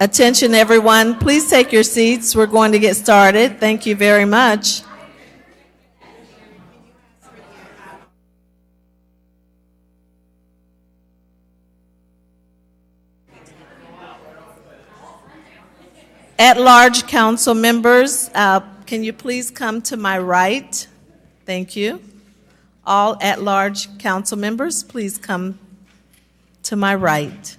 Attention, everyone. Please take your seats. We're going to get started. Thank you very much. At-large council members, uh, can you please come to my right? Thank you. All at-large council members, please come to my right.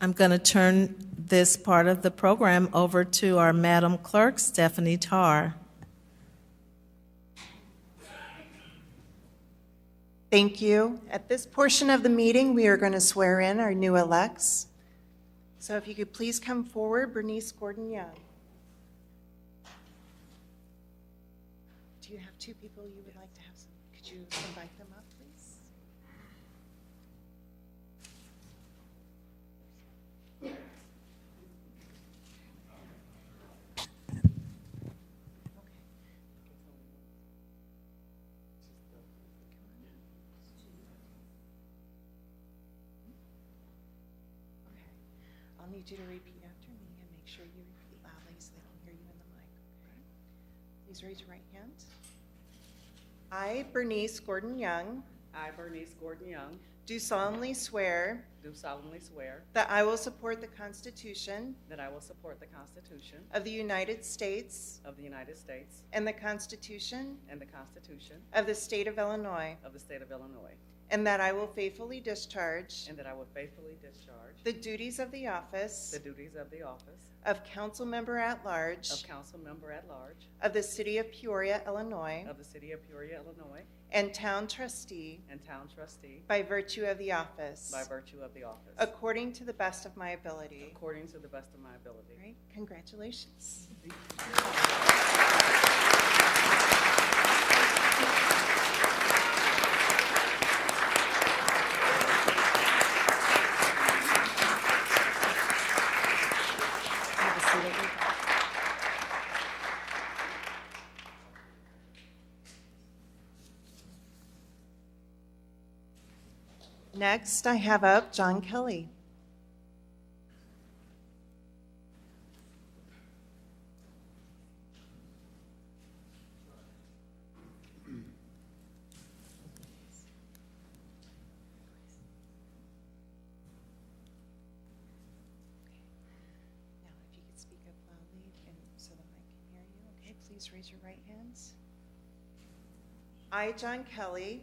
I'm going to turn this part of the program over to our Madam Clerk, Stephanie Tarr. Thank you. At this portion of the meeting, we are going to swear in our new elects. So if you could please come forward, Bernice Gordon Young. Do you have two people you would like to have? Could you invite them up, please? Okay. I'll need you to repeat after me and make sure you repeat loudly so they can hear you in the mic, okay? Please raise your right hand. I, Bernice Gordon Young, I, Bernice Gordon Young, do solemnly swear do solemnly swear that I will support the Constitution that I will support the Constitution of the United States of the United States and the Constitution and the Constitution of the State of Illinois, of the State of Illinois, and that I will faithfully discharge and that I will faithfully discharge the duties of the office the duties of the office of council member at of large council member at large of the city of Peoria, Illinois, of the City of Peoria, Illinois, and town trustee and town trustee by virtue of the office, by virtue of the office, according to the best of my ability. according to the best of my ability. All right, congratulations. Next, I have up John Kelly. Now, if you could speak up loudly and so that I can hear you, okay? Please raise your right hands. I, John Kelly,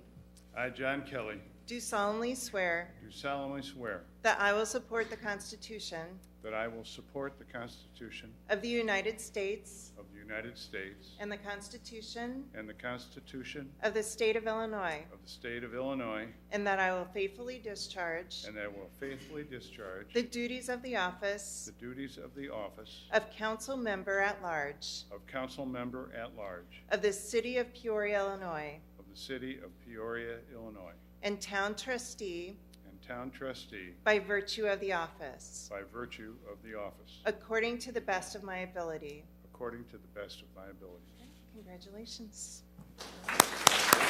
I, John Kelly, do solemnly swear do solemnly swear that I will support the Constitution that I will support the Constitution of the United States of the United States and the Constitution and the Constitution of the State of Illinois, of the State of Illinois, and that I will faithfully discharge and that I will faithfully discharge the duties of the office the duties of the office of council member at large of council member at large of the City of Peoria, Illinois, of the City of Peoria, Illinois, and town trustee and town trustee by virtue of the office, by virtue of the office, according to the best of my ability. according to the best of my ability. Congratulations.